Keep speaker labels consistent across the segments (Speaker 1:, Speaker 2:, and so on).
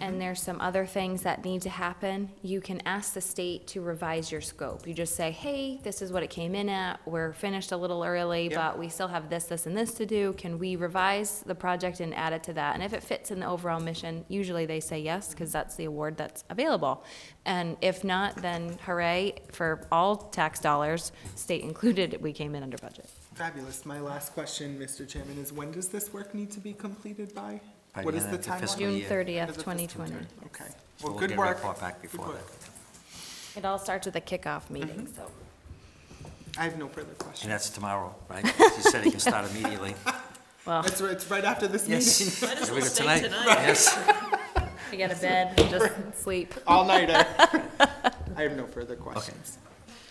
Speaker 1: and there's some other things that need to happen, you can ask the state to revise your scope. You just say, hey, this is what it came in at, we're finished a little early,
Speaker 2: Yeah.
Speaker 1: but we still have this, this, and this to do. Can we revise the project and add it to that? And if it fits in the overall mission, usually they say yes, because that's the award that's available. And if not, then hooray, for all tax dollars, state included, we came in under budget.
Speaker 2: Fabulous. My last question, Mr. Chairman, is when does this work need to be completed by?
Speaker 3: By
Speaker 2: What
Speaker 3: the
Speaker 2: is
Speaker 3: end
Speaker 2: the
Speaker 3: of the fiscal
Speaker 2: timeline?
Speaker 3: year.
Speaker 1: June
Speaker 2: End
Speaker 3: yeah.
Speaker 2: of
Speaker 1: thirtieth,
Speaker 2: the
Speaker 1: twenty
Speaker 2: fiscal
Speaker 1: twenty.
Speaker 2: year. Okay.
Speaker 3: So
Speaker 2: Well,
Speaker 3: we'll
Speaker 2: good
Speaker 3: get a
Speaker 2: work.
Speaker 3: report back
Speaker 2: Good
Speaker 3: before
Speaker 2: work.
Speaker 1: It all starts with a kickoff meeting, so.
Speaker 2: I have no further
Speaker 3: And
Speaker 2: questions.
Speaker 3: that's tomorrow, right? You said it can start immediately.
Speaker 1: Well,
Speaker 2: It's, right- it's right after this meeting.
Speaker 3: Yes. Might as well Yes.
Speaker 1: we get a bed, just sleep.
Speaker 2: All nighter. I have no further questions.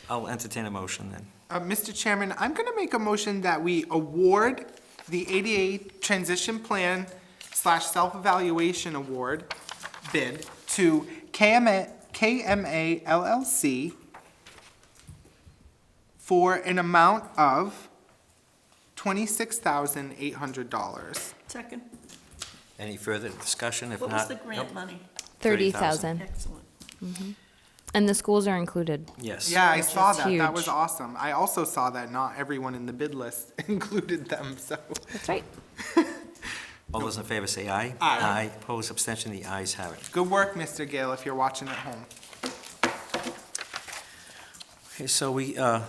Speaker 3: I'll entertain a motion then.
Speaker 2: Uh, Mr. Chairman, I'm gonna make a motion that we award the ADA Transition Plan slash Self-Evaluation Award bid to KMA, KMA LLC for an amount of twenty-six thousand eight hundred dollars.
Speaker 4: Second,
Speaker 3: Any further discussion? If not.
Speaker 4: what was the grant
Speaker 3: Nope.
Speaker 4: money?
Speaker 1: Thirty
Speaker 3: 30,000.
Speaker 1: thousand,
Speaker 4: Excellent.
Speaker 1: and the schools are included.
Speaker 3: Yes.
Speaker 2: Yeah, I
Speaker 1: Which is
Speaker 2: saw that. That was
Speaker 1: huge.
Speaker 2: awesome. I also saw that not everyone in the bid list included them, so.
Speaker 1: That's right.
Speaker 3: All those in favor say aye.
Speaker 2: Aye.
Speaker 3: Aye, opposed, abstention, the ayes have it.
Speaker 2: Good work, Mr. Gale, if you're watching at home.
Speaker 3: Okay, so we uh,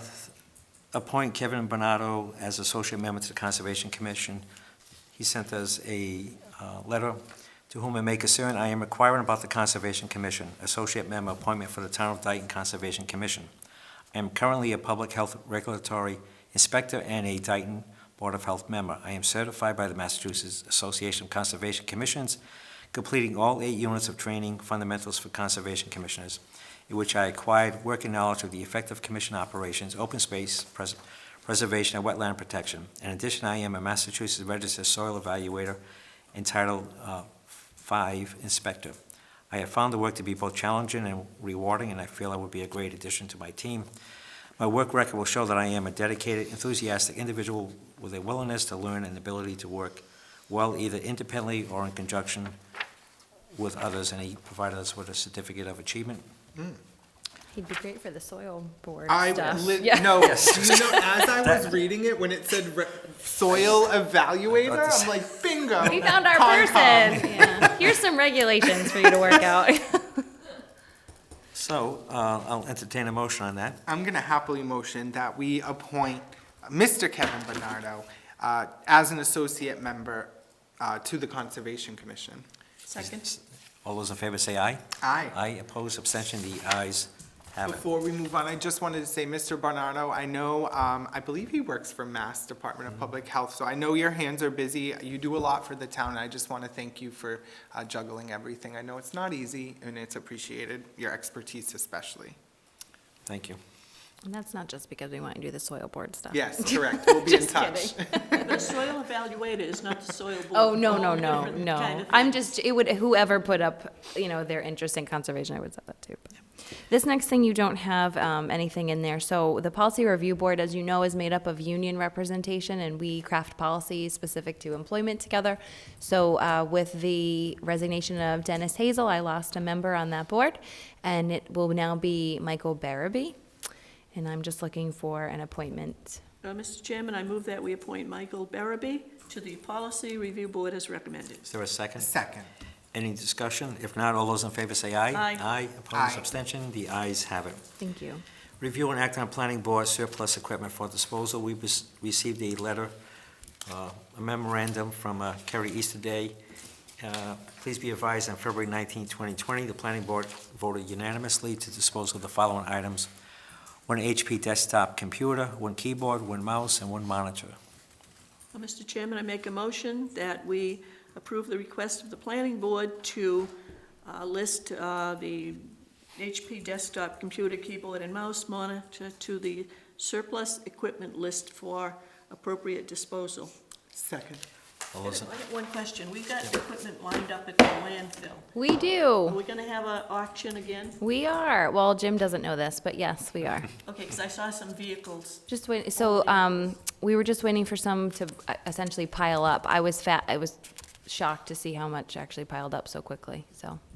Speaker 3: appoint Kevin Bernardo as associate member to the Conservation Commission. He sent us a uh, letter, "To whom it may concern, I am inquiring about the Conservation Commission, associate member appointment for the Town of Dayton Conservation Commission. I am currently a public health regulatory inspector and a Dayton Board of Health member. I am certified by the Massachusetts Association of Conservation Commissions, completing all eight units of training fundamentals for conservation commissioners in which I acquired working knowledge of the effective commission operations, open space, pres- preservation, and wetland protection. In addition, I am a Massachusetts registered soil evaluator entitled uh, Five Inspector. I have found the work to be both challenging and rewarding, and I feel I would be a great addition to my team. My work record will show that I am a dedicated, enthusiastic individual with a willingness to learn and ability to work well either independently or in conjunction with others, and he provided us with a certificate of achievement.
Speaker 1: He'd be great for the soil board
Speaker 2: I
Speaker 1: stuff.
Speaker 2: li-
Speaker 1: Yeah.
Speaker 2: no, you know, as I was reading it when it said re- soil
Speaker 3: I
Speaker 2: evaluator,
Speaker 3: thought this-
Speaker 2: I'm like, bingo.
Speaker 1: We found our
Speaker 2: Concom.
Speaker 1: person. Yeah. Here's some regulations for you to work out.
Speaker 3: So uh, I'll entertain a motion on that.
Speaker 2: I'm gonna happily motion that we appoint Mr. Kevin Bernardo uh, as an associate member uh, to the Conservation Commission.
Speaker 4: Second,
Speaker 3: All those in favor say aye.
Speaker 2: Aye.
Speaker 3: Aye, opposed, abstention, the ayes have it.
Speaker 2: Before we move on, I just wanted to say, Mr. Barnardo, I know, um, I believe he works for Mass Department of Public Health, so I know your hands are busy. You do a lot for the town, and I just want to thank you for uh, juggling everything. I know it's not easy, and it's appreciated, your expertise especially.
Speaker 3: Thank you.
Speaker 1: And that's not just because we want to do the soil board stuff.
Speaker 2: Yes, correct, we'll be in
Speaker 1: Just
Speaker 2: touch.
Speaker 4: the soil evaluator is not the soil board.
Speaker 1: Oh, no, no,
Speaker 4: Totally
Speaker 1: no,
Speaker 4: different kind
Speaker 1: no.
Speaker 4: of
Speaker 1: I'm
Speaker 4: thing.
Speaker 1: just, it would, whoever put up, you know, their interest in conservation, I would say that too. but- This next thing, you don't have um, anything in there. So the Policy Review Board, as you know, is made up of union representation, and we craft policies specific to employment together. So uh, with the resignation of Dennis Hazel, I lost a member on that board, and it will now be Michael Barabee. And I'm just looking for an appointment.
Speaker 4: Uh, Mr. Chairman, I move that we appoint Michael Barabee to the Policy Review Board as recommended.
Speaker 3: Is there a second?
Speaker 2: Second,
Speaker 3: Any discussion? If not, all those in favor say aye.
Speaker 4: Aye.
Speaker 3: Aye,
Speaker 2: Aye.
Speaker 3: opposed, abstention, the ayes have it.
Speaker 1: Thank you.
Speaker 3: Review and act on planning board surplus equipment for disposal. We bes- received a letter, uh, a memorandum from uh, Kerry Easterday. Uh, Please be advised, on February 19, 2020, the planning board voted unanimously to dispose of the following items: one HP desktop computer, one keyboard, one mouse, and one monitor.
Speaker 4: Uh, Mr. Chairman, I make a motion that we approve the request of the Planning Board to uh, list uh, the HP desktop computer, keyboard, and mouse monitor to the surplus equipment list for appropriate disposal.
Speaker 2: second.
Speaker 3: All
Speaker 4: I
Speaker 3: those in-
Speaker 4: got One question, we got equipment lined up at the landfill.
Speaker 1: We do.
Speaker 4: Are we gonna have an auction again?
Speaker 1: We are. Well, Jim doesn't know this, but yes, we are.
Speaker 4: Okay, because I saw some vehicles.
Speaker 1: Just wait, so, um, we were just waiting for some to uh, essentially pile up. I was fat, I was shocked to see how much actually piled up so quickly, so.